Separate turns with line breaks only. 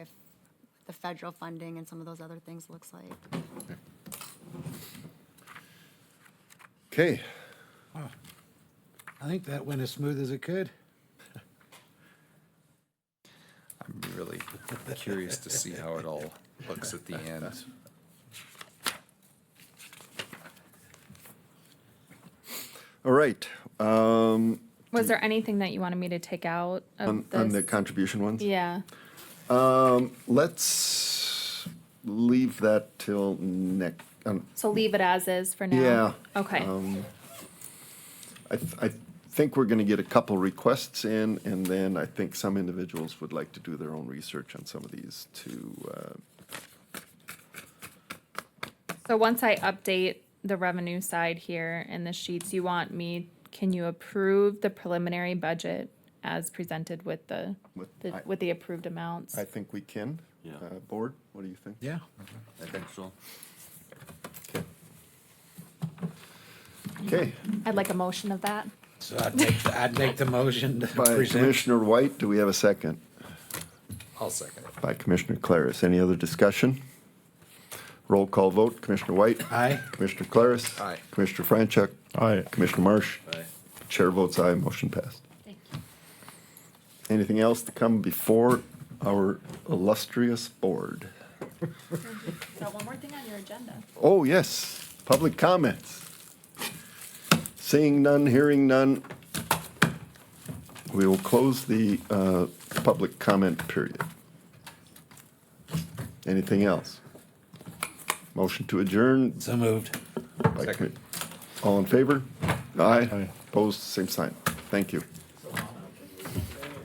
the federal funding and some of those other things looks like.
Okay,
I think that went as smooth as it could.
I'm really curious to see how it all looks at the end.
all right, um,
Was there anything that you wanted me to take out of
on,
this?
on the contribution ones.
yeah.
Let's leave that till next, um,
So leave it as is for now.
Yeah, um,
Okay.
I, th- I think we're gonna get a couple requests in, and then I think some individuals would like to do their own research on some of these to, uh,
so once I update the revenue side here in the sheets, you want me? Can you approve the preliminary budget as presented with the with,
With-
the,
I-
with the approved amounts?
I think we can.
Yeah. Mm-hmm.
Uh, Board, what do you think?
Yeah.
I think so.
Okay,
I'd like a motion of that.
So I'd make, the- I'd make the motion to
by
present.
Commissioner White, do we have a second?
I'll second it.
By Commissioner Claris, any other discussion? Roll call vote, Commissioner White?
Aye.
Commissioner Claris?
Aye.
Commissioner Franchuk? Aye. Commissioner Marsh?
Aye.
Chair votes aye, motion passed.
Thank you.
Anything else to come before our illustrious board?
So one more thing on your agenda.
Oh, yes, public comments. Seeing none, hearing none, we will close the uh, public comment period. Anything else? Motion to adjourn.
So moved.
by commi- All in favor? Aye. Opposed, same sign. Thank you.